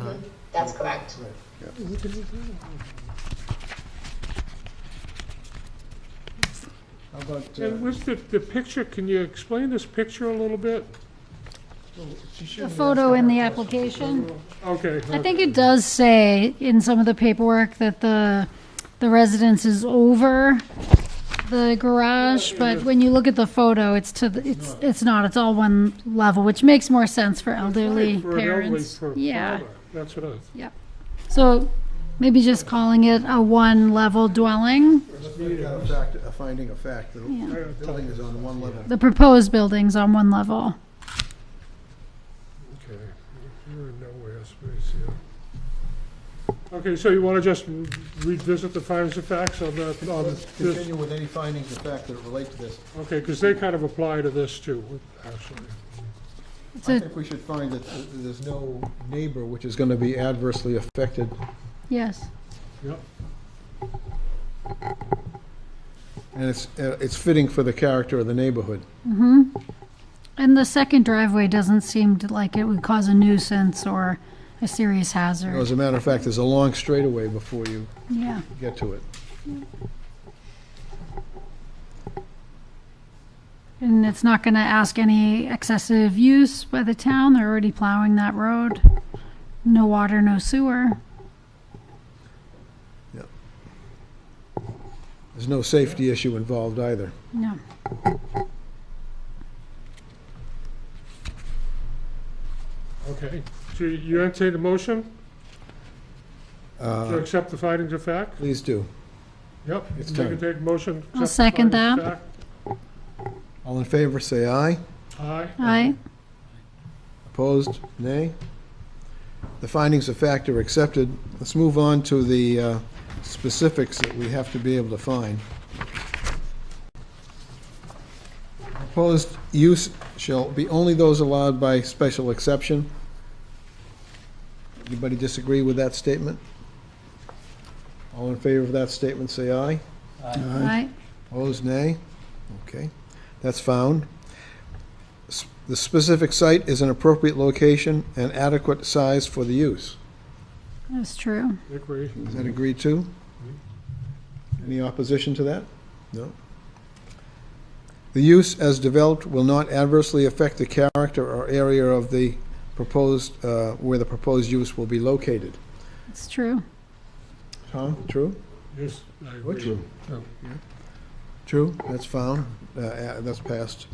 Huh? That's correct. Right. How about, uh, And with the, the picture, can you explain this picture a little bit? well, she shouldn't The be photo asking in the that question. application, Okay. I think it does say in some of the paperwork that the, the residence is over the garage, but when you look at the photo, it's to, the it's, it's not, it's all one level, which makes more sense for elderly For an elderly parents. per- Yeah, father. That's what I, so maybe just calling it a one-level dwelling. Let's make that a fact, a finding of fact. The Yeah. I thought, building is on one level. The proposed building's on one level. okay. You're in nowhere space, yeah. Okay, so you want to just revisit the findings of facts on that, on Let's this? continue with any findings of fact that relate to this. Okay, because they kind of apply to this too, actually. It's I a, think we should find that th- there's no neighbor which is gonna be adversely affected. yes, Yep. And it's, uh, it's fitting for the character of the neighborhood. and the second driveway doesn't seem to like it would cause a nuisance or a serious You hazard. know, As a matter of fact, there's a long straightaway before you Yeah, get to it. and it's not gonna ask any excessive use by the town, they're already plowing that road. No water, no sewer. There's no safety issue involved either. No. Okay. So you- you entertain a motion to Uh, accept the findings of fact? Please do. Yep. It's You can done. take a motion. to I'll accept the second findings of that. All in favor, say aye. fact. Aye. Aye, Opposed? Nay? The findings of fact are accepted. Let's move on to the uh, specifics that we have to be able to find. Proposed use shall be only those allowed by special exception. Anybody disagree with that statement? All in favor of that statement, say aye. aye, Opposed, nay? Okay, that's found. S- The specific site is an appropriate location and adequate size for the use. that's true. Agree. Is that agreed to? Any opposition to that? No? The use as developed will not adversely affect the character or area of the proposed, uh, where the proposed use will be located. It's true. Tom, true? Yes, I agree. No. True, that's found, uh, uh, that's passed.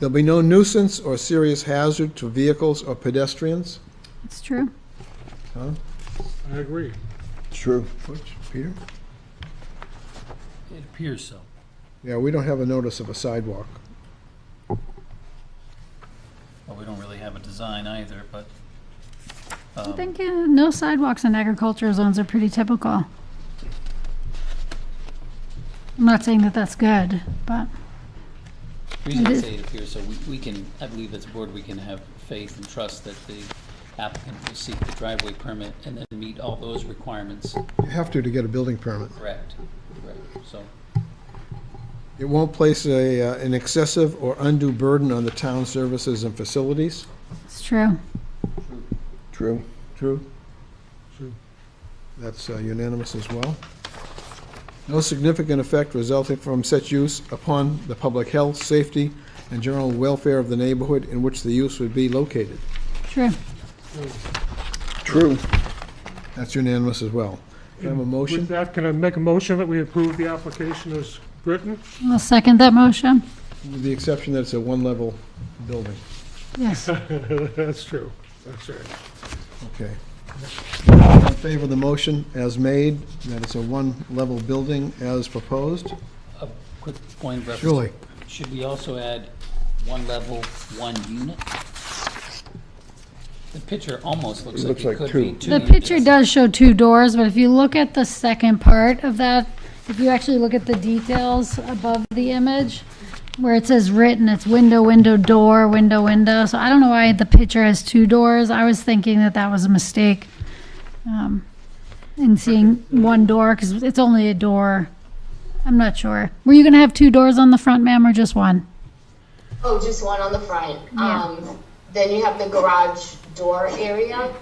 There'll be no nuisance or serious hazard to vehicles or pedestrians. It's true. Tom? I agree. True. Butch, Peter? It appears so. Yeah, we don't have a notice of a sidewalk. Well, we don't really have a design either, but. I um, think uh, no sidewalks in agricultural zones are pretty typical. I'm not saying that that's good, but The reason I Mhm. say it appears so, we, we can, I believe as a board, we can have faith and trust that the applicant will seek the driveway permit and then meet all those requirements. You have to to get a building permit. Correct. Correct, so. It won't place a, uh, an excessive or undue burden on the town services and facilities. it's true. True. True. True. That's uh, unanimous as well. No significant effect resulting from such use upon the public health, safety, and general welfare of the neighborhood in which the use would be located. True. True. That's unanimous as well. Can I have a With motion? that, can I make a motion that we approve the application as written? I'll second that motion. With the exception that it's a one-level building. Yes, That's true. That's right. Okay. All In favor of the motion as made, that it's a one-level building as proposed? A quick point of reference. Julie? Should we also add one level, one unit? The picture almost looks like it could be two the units. picture does show two doors, but if you look at the second part of that, if you actually look at the details above the image, where it says written, it's window, window, door, window, window. So I don't know why the picture has two doors. I was thinking that that was a mistake um, in seeing one door because it's only a door. I'm not sure. Were you going to have two doors on the front, ma'am, or just one? Oh, just one on the front. Yeah. Um, then you have the garage door area.